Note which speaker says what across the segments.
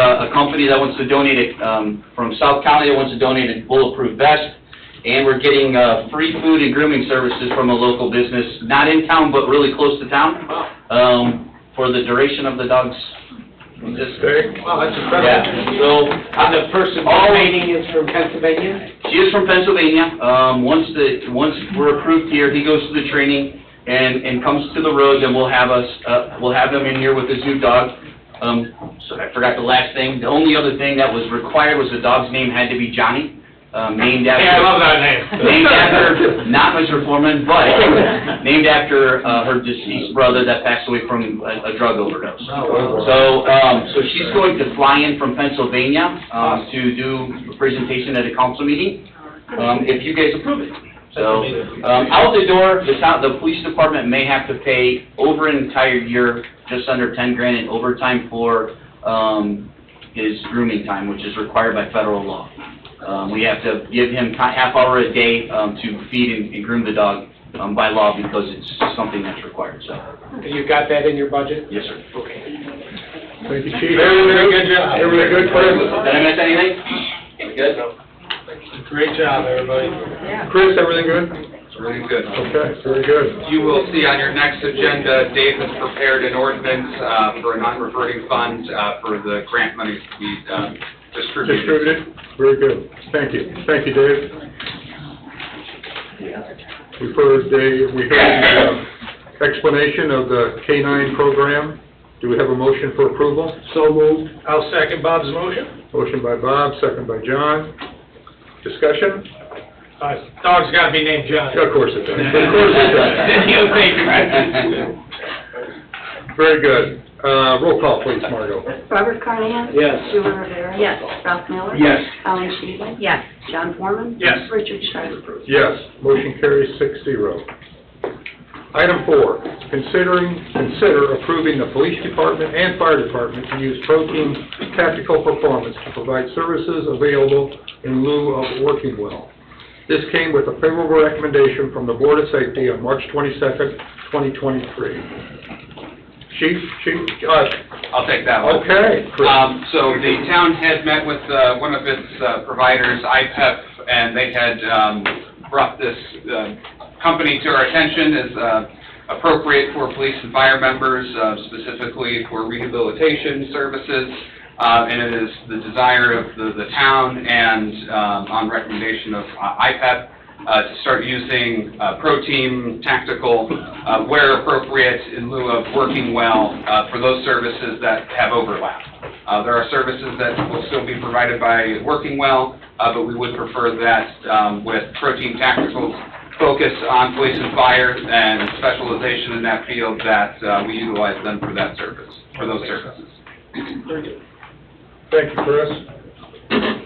Speaker 1: uh, a company that wants to donate it, um, from South County that wants to donate a bulletproof vest. And we're getting, uh, free food and grooming services from a local business, not in town, but really close to town, um, for the duration of the dog's existence.
Speaker 2: Wow, that's
Speaker 1: Yeah,
Speaker 2: impressive.
Speaker 1: so,
Speaker 2: And the person donating is from Pennsylvania?
Speaker 1: She is from Pennsylvania. Um, once the, once we're approved here, he goes to the training and, and comes to the road, then we'll have us, uh, we'll have him in here with his new dog. Um, so I forgot the last thing. The only other thing that was required was the dog's name had to be Johnny, um, named after.
Speaker 2: that name.
Speaker 1: Named after, not Mr. Foreman, but named after, uh, her deceased brother that passed away from a, a drug overdose.
Speaker 2: Oh,
Speaker 1: So, um, so she's going to fly in from Pennsylvania, um, to do a presentation at a council meeting, um, if you guys approve it. So, um, out the door, the town, the police department may have to pay over an entire year, just under ten grand in overtime for, um, his grooming time, which is required by federal law. Um, we have to give him ti- half hour a day, um, to feed and- and groom the dog, um, by law because it's something that's required, so,
Speaker 2: You got that in your budget?
Speaker 1: yes, sir.
Speaker 2: Okay.
Speaker 3: Thank you, Chief.
Speaker 2: Very, very good job.
Speaker 3: Everybody good,
Speaker 1: Did I
Speaker 3: Chris?
Speaker 1: miss anything? Good?
Speaker 2: Great job, everybody.
Speaker 3: Chris, everything good?
Speaker 4: Really good.
Speaker 3: Okay, very good.
Speaker 4: You will see on your next agenda, Dave has prepared an ordinance uh, for a non-reverting fund uh, for the grant monies to be um, distributed.
Speaker 3: Distributed? Very good. Thank you. Thank you, Dave. We heard the, we heard the uh, explanation of the K-9 program. Do we have a motion for approval?
Speaker 2: So moved. I'll second Bob's motion.
Speaker 3: Motion by Bob, second by John. Discussion?
Speaker 2: Uh, Dog's gotta be named John.
Speaker 3: Of course it does. Of course it does.
Speaker 2: You think.
Speaker 3: Very good. Uh, roll call, please, Margot.
Speaker 5: Robert Carnahan?
Speaker 2: Yes.
Speaker 5: Julie Rivera?
Speaker 6: Yes.
Speaker 5: Ralph Miller?
Speaker 2: Yes.
Speaker 5: Alan Sheedlin?
Speaker 6: Yes.
Speaker 5: John Foreman?
Speaker 2: Yes.
Speaker 5: Richard Schreiber?
Speaker 3: Yes, motion carries six zero. Item four, considering, consider approving the police department and fire department to use protein tactical performance to provide services available in lieu of working well. This came with a favorable recommendation from the Board of Safety on March twenty-second, twenty twenty-three. Chief, Chief, uh,
Speaker 4: I'll take that one.
Speaker 3: okay, Chris.
Speaker 4: Um, so the town had met with, uh, one of its uh, providers, IPEP, and they had, um, brought this, uh, company to our attention as, uh, appropriate for police and fire members, uh, specifically for rehabilitation services. Uh, and it is the desire of the, the town and, um, on recommendation of uh, IPEP, uh, to start using, uh, pro team tactical, uh, where appropriate in lieu of working well, uh, for those services that have overlap. Uh, There are services that will still be provided by Working Well, uh, but we would prefer that um, with Protein Tactical's focus on police and fire and specialization in that field, that uh, we utilize them for that service, for those services.
Speaker 3: Thank you, Chris.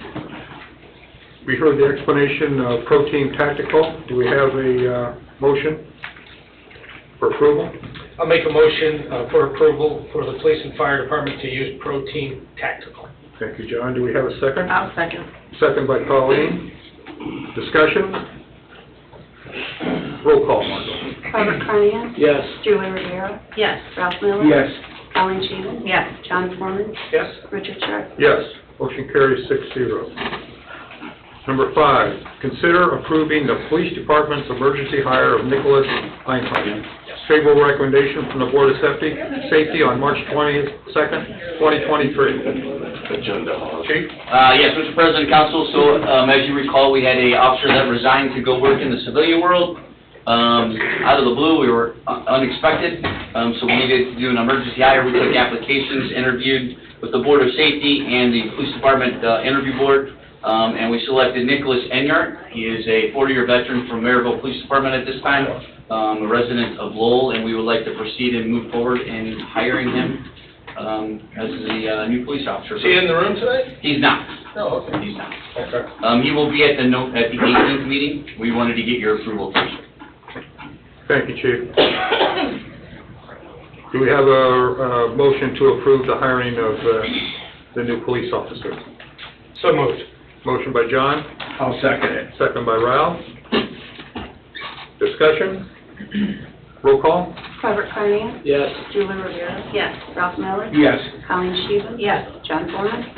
Speaker 3: We heard the explanation of protein tactical. Do we have a uh, motion for approval?
Speaker 2: I'll make a motion uh, for approval for the police and fire department to use protein tactical.
Speaker 3: Thank you, John. Do we have a second?
Speaker 6: I'll second.
Speaker 3: Second by Colleen. Discussion? Roll call, Margot.
Speaker 5: Robert Carnahan?
Speaker 2: Yes.
Speaker 5: Julie Rivera?
Speaker 6: Yes.
Speaker 5: Ralph Miller? Alan Sheedlin?
Speaker 6: Yes.
Speaker 5: John Foreman?
Speaker 2: Yes?
Speaker 5: Richard Schreiber?
Speaker 3: Yes, motion carries six zero. Number five, consider approving the police department's emergency hire of Nicholas Einhardt. Favorable recommendation from the Board of Safety, Safety on March twentieth, second, twenty twenty-three. Chief?
Speaker 1: Uh, Yes, Mr. President, Council, so um, as you recall, we had a officer that resigned to go work in the civilian world. Um, Out of the blue, we were un- unexpected, um, so we needed to do an emergency hire. We took applications, interviewed with the Board of Safety and the Police Department uh, Interview Board, um, and we selected Nicholas Enyart. He is a 40-year veteran from Maryville Police Department at this time, um, a resident of Lowell, and we would like to proceed and move forward in hiring him um, as the uh, new police officer.
Speaker 2: Is he in the room tonight?
Speaker 1: He's not.
Speaker 2: No, okay.
Speaker 1: He's not.
Speaker 2: Okay.
Speaker 1: Um, he will be at the no, at the eighteenth meeting. We wanted to get your approval first.
Speaker 3: Thank you, Chief. Do we have a, uh motion to approve the hiring of, uh, the new police officer?
Speaker 2: So moved.
Speaker 3: Motion by John,
Speaker 2: I'll second it.
Speaker 3: second by Ralph. Discussion? Roll call?
Speaker 5: Robert Carnahan?
Speaker 2: Yes.
Speaker 5: Julie Rivera?
Speaker 6: Yes.
Speaker 5: Ralph Miller?
Speaker 2: Yes.
Speaker 5: Alan Sheedlin?
Speaker 6: Yes.
Speaker 5: John Foreman?